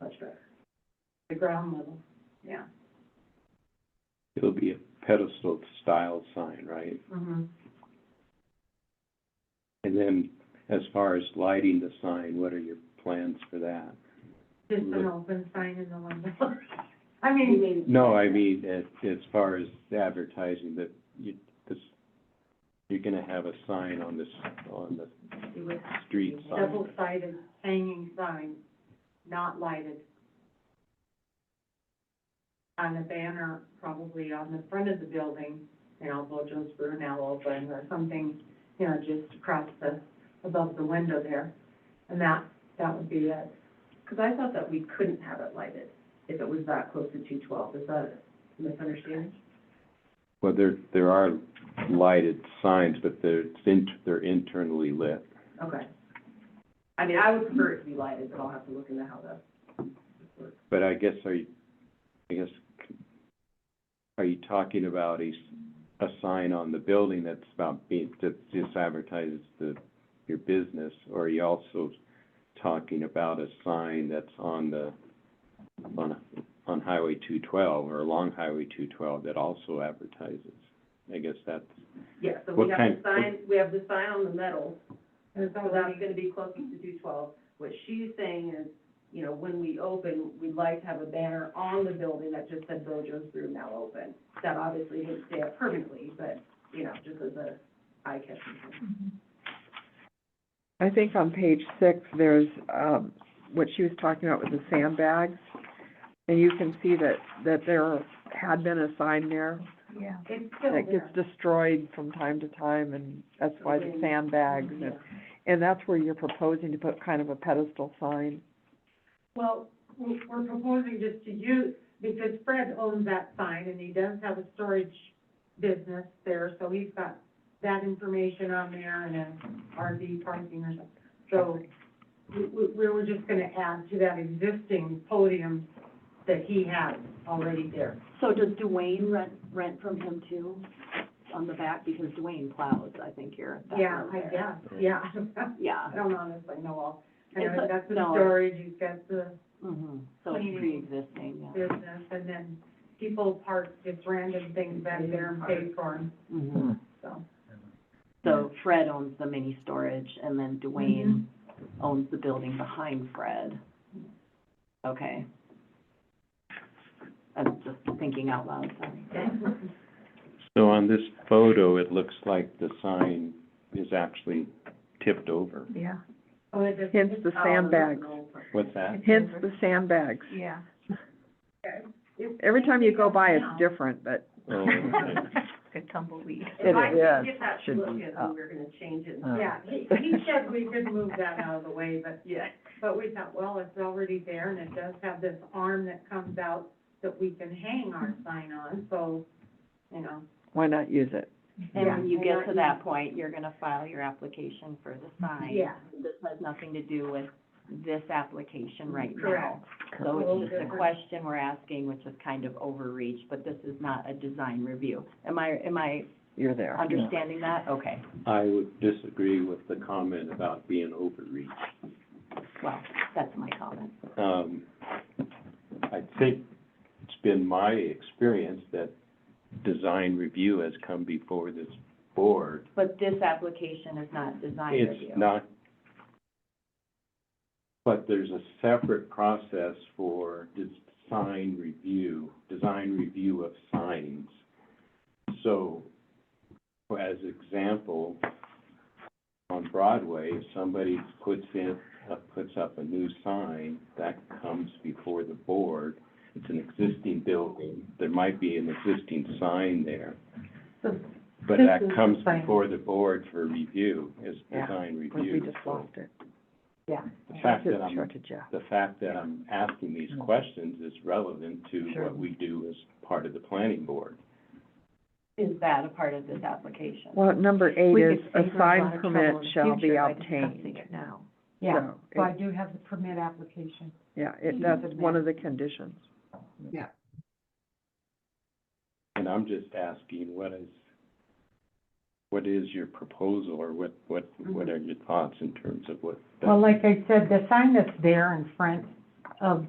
That's right. The ground level, yeah. It'll be a pedestal style sign, right? Mm-hmm. And then as far as lighting the sign, what are your plans for that? Just an Look. open sign in the window. I mean, No, I mean, as, as far as advertising, that you, this, you're gonna have a sign on this, on the with street sign. double-sided hanging sign, not lighted. On a banner, probably on the front of the building, you know, Bojo's Brew now open or something, you know, just across the, above the window there. And that, that would be it. Because I thought that we couldn't have it lighted if it was that close to two twelve, is that a misunderstanding? Well, there, there are lighted signs, but they're, it's in- they're internally lit. Okay. I mean, I would prefer it to be lighted, but I'll have to look into how that works. But I guess, are you, I guess, are you talking about a, s- a sign on the building that's about being, that just advertises the, your business? Or are you also talking about a sign that's on the, on, on Highway two twelve or along Highway two twelve that also advertises? I guess that's, Yeah, so What we have kind- the sign, we have the sign on the metal, Is so that's gonna be closest to two twelve. What she's saying is, you know, when we open, we'd like to have a banner on the building that just said Bojo's Brew now open. That obviously didn't stay up permanently, but, you know, just as a eye catcher. I think on page six, there's, um, what she was talking about with the sandbags. And you can see that, that there had been a sign there Yeah. It's still that there. gets destroyed from time to time and that's why the sandbags. Yeah. And, and that's where you're proposing to put kind of a pedestal sign. Well, we're we're proposing just to use, because Fred owns that sign and he does have a storage business there, so he's got that information on there and an RV parking or something. So we, we, we were just gonna add to that existing podium that he has already there. So does Dwayne rent, rent from him too, on the back, because Dwayne plows, I think, here. at that Yeah, road I there. guess, yeah. Yeah, I don't honestly know all. I It's know a- he's got the no. storage, he's got the mhm, so it's Cleaning. pre-existing, yeah. business, and then people park just random things back there and pay for them, Mhm. so. So Fred owns the mini storage, and then Dwayne Mm-hmm. owns the building behind Fred. Okay. I'm just thinking out loud, sorry. so on this photo, it looks like the sign is actually tipped over. Yeah, Oh, it does- Hence the sandbags, What's that? hence the sandbags. yeah. Every time you go by, it's different, but Oh, okay. Good tumbleweed. it If I is. could get that should to be look at, up. Uh. we were gonna change it. Yeah, he, he said we could move that out of the way, but, Yeah. but we thought, well, it's already there and it does have this arm that comes out that we can hang our sign on, so, you know. why not use it? And when you Yeah. get to that point, you're gonna file your application for the sign. Yeah. This has nothing to do with this application right now. Correct. So Correct. it's just a question we're asking, which is kind of overreach, but this is not a design review. Am I, am I You're there. understanding that? Okay, I would disagree with the comment about being overreach. well, that's my comment. Um, I think it's been my experience that design review has come before this board. But this application is not design review. It's not, but there's a separate process for design review, design review of signs. So, for- as example, on Broadway, if somebody puts in, uh, puts up a new sign, that comes before the board. It's an existing building, there might be an existing sign there. But This that is comes fine. before the board for review, is Yeah, design We review. just So lost it. Yeah. The fact that Sure I'm, to Jeff. the fact that I'm asking these Mm. questions is relevant to Sure. what we do as part of the planning board. Is that a part of this application? Well, number We eight could save is, a her a lot sign of permit trouble in the shall be future by discussing obtained. it Now. Yeah, So I do have the permit application. Yeah, it, Mhm. that's one of the conditions. And I'm just asking, what is, what is your proposal, or what, what, Mm-hmm. what are your thoughts in terms of what? Well, like I said, the sign that's there in front of